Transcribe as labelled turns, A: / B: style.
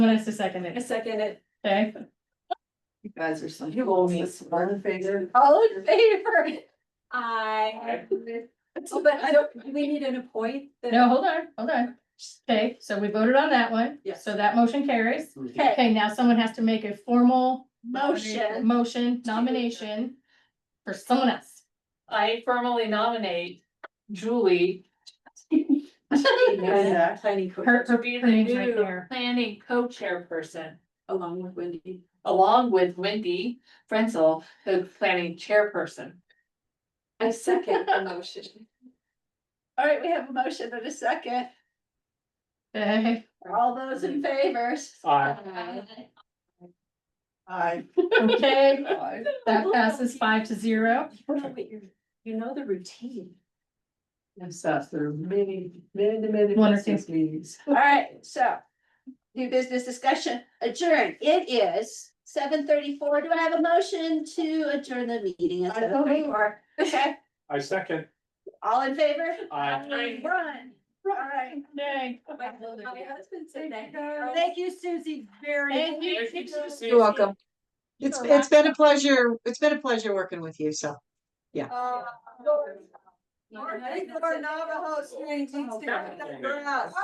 A: wants to second
B: I
A: it,
B: second it.
A: okay?
C: You guys are so.
B: You owe me.
C: This one favor.
B: All in favor? I. Oh, but I don't, do we need an appoint. the-
A: No, hold on, hold on. Okay, so we voted on that one.
B: Yes.
A: So that motion carries.
B: Okay.
A: Okay, now someone has to make a formal.
B: Motion.
A: Motion nomination for someone else.
D: I formally nominate Julie
B: Yeah, Planning. co-
A: Her,
D: to
A: her,
D: be
A: her
D: the
A: name's right
D: new
A: there.
D: planning co-chairperson.
B: Along with Wendy.
D: Along with Wendy Frenzel, the planning chairperson.
B: I second the motion. All right, we have a motion and a second.
A: Okay,
B: All those in favor? Aye.
C: I.
A: okay, that passes five to zero.
B: You know the routine.
C: Yes, that's there are many, many, many.
A: Wonderful.
C: business meetings.
B: All right, so new business discussion adjourned. It is seven thirty-four. Do I have a motion to adjourn the meeting? at
C: I don't
B: 7:34? Okay,
E: I second.
B: all in favor?
E: I.
B: Run. All right.
A: Yay.
B: husband said that. Thank you, Susie, very.
A: Thank you.
F: You're welcome. It's,
B: You're
F: it's been a pleasure, it's been a pleasure working with you, so.
B: Uh, Navajo Springs,
E: for us.